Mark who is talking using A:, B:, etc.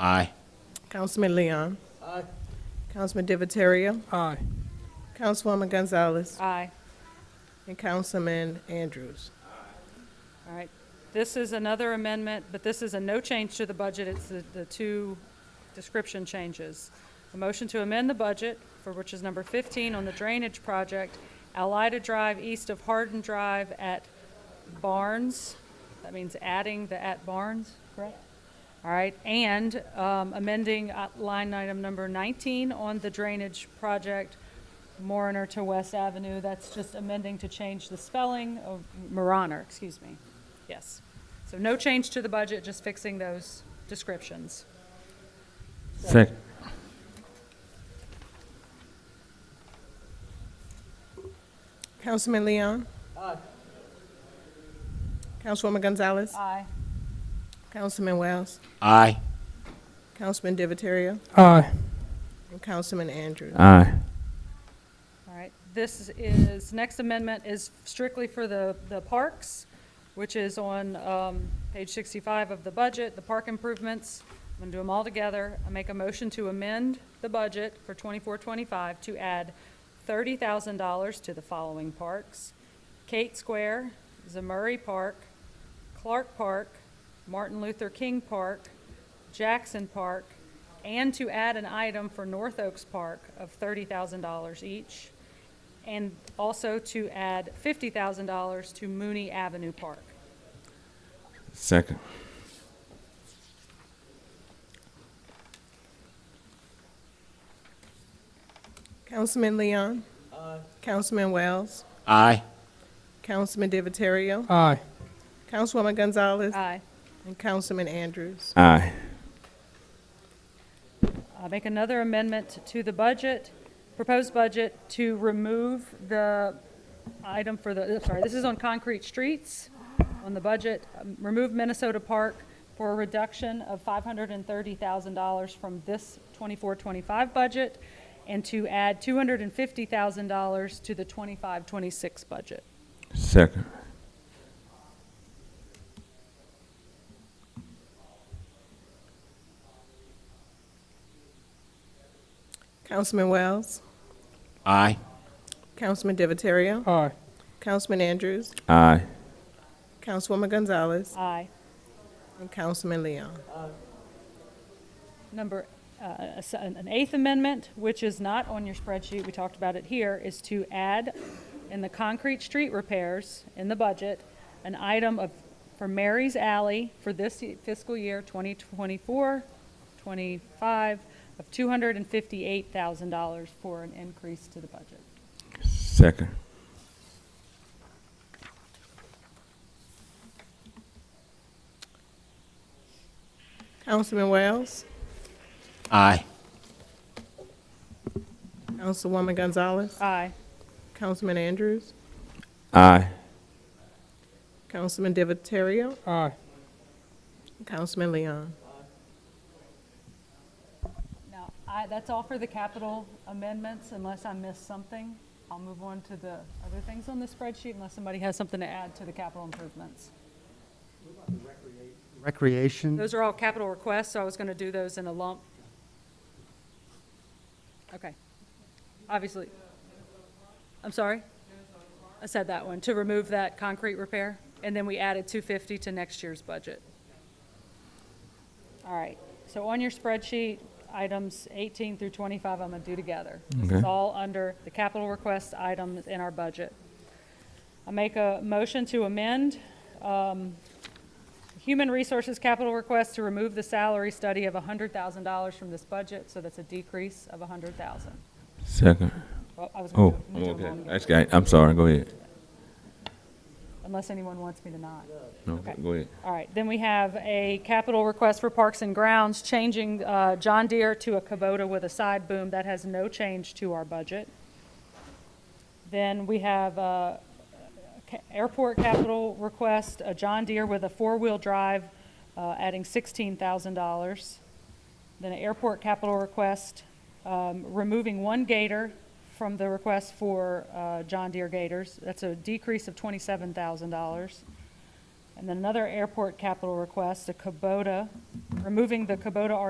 A: Aye.
B: Councilman Leon. Aye. Councilman Divatario.
C: Aye.
B: Councilwoman Gonzalez.
D: Aye.
B: And Councilman Andrews.
D: All right. This is another amendment, but this is a no change to the budget. It's the, the two description changes. A motion to amend the budget for which is number 15 on the drainage project, Alida Drive east of Hardin Drive at Barnes. That means adding the at Barnes, correct? All right, and um, amending uh, line item number 19 on the drainage project, Moroner to West Avenue. That's just amending to change the spelling of Moroner, excuse me. Yes. So no change to the budget, just fixing those descriptions.
E: Second.
B: Councilman Leon. Aye. Councilwoman Gonzalez.
D: Aye.
B: Councilman Wells.
A: Aye.
B: Councilman Divatario.
C: Aye.
B: And Councilman Andrews.
E: Aye.
D: All right, this is, next amendment is strictly for the, the parks, which is on um, page 65 of the budget, the park improvements. I'm going to do them all together. I make a motion to amend the budget for 24-25 to add $30,000 to the following parks: Kate Square, Zamurray Park, Clark Park, Martin Luther King Park, Jackson Park, and to add an item for North Oaks Park of $30,000 each, and also to add $50,000 to Mooney Avenue Park.
E: Second.
B: Councilman Leon. Aye. Councilman Wells.
A: Aye.
B: Councilman Divatario.
C: Aye.
B: Councilwoman Gonzalez.
D: Aye.
B: And Councilman Andrews.
E: Aye.
D: Uh, Make another amendment to the budget, proposed budget, to remove the item for the, uh, sorry, this is on concrete streets, on the budget, um, remove Minnesota Park for a reduction of $530,000 from this 24-25 budget, and to add $250,000 to the 25-26 budget.
E: Second.
B: Councilman Wells.
A: Aye.
B: Councilman Divatario.
C: Aye.
B: Councilman Andrews.
E: Aye.
B: Councilwoman Gonzalez.
D: Aye.
B: And Councilman Leon.
D: number, uh, a s- an eighth amendment, which is not on your spreadsheet, we talked about it here, is to add in the concrete street repairs in the budget, an item of, for Mary's Alley for this y- fiscal year, 2024, 25, of $258,000 for an increase to the budget.
E: Second.
B: Councilman Wells.
A: Aye.
B: Councilwoman Gonzalez.
D: Aye.
B: Councilman Andrews.
E: Aye.
B: Councilman Divatario.
C: Aye.
B: Councilman Leon.
D: Now, I, that's all for the capital amendments, unless I missed something. I'll move on to the other things on the spreadsheet unless somebody has something to add to the capital improvements.
F: Recreation,
D: Those are all capital requests, so I was going to do those in a lump. Okay. Obviously, I'm sorry? I said that one, to remove that concrete repair, and then we added 250 to next year's budget. All right, so on your spreadsheet, items 18 through 25, I'm going to do together. This is
E: Okay.
D: all under the capital request items in our budget. I make a motion to amend Human Resources capital request to remove the salary study of $100,000 from this budget, so that's a decrease of $100,000.
E: Second.
D: Well, I was gonna
E: Oh,
D: do-
E: I'm
D: do
E: okay.
D: them all together,
E: Actually, I- I'm sorry. Go ahead.
D: Unless anyone wants me to not.
E: No,
D: Okay.
E: go ahead.
D: All right, then we have a capital request for Parks and Grounds, changing uh, John Deere to a Kubota with a side boom. That has no change to our budget. Then we have uh, ca- airport capital request, a John Deere with a four-wheel drive, uh, adding $16,000. Then an airport capital request, um, removing one gator from the request for uh, John Deere gators. That's a decrease of $27,000. And then another airport capital request, a Kubota, removing the Kubota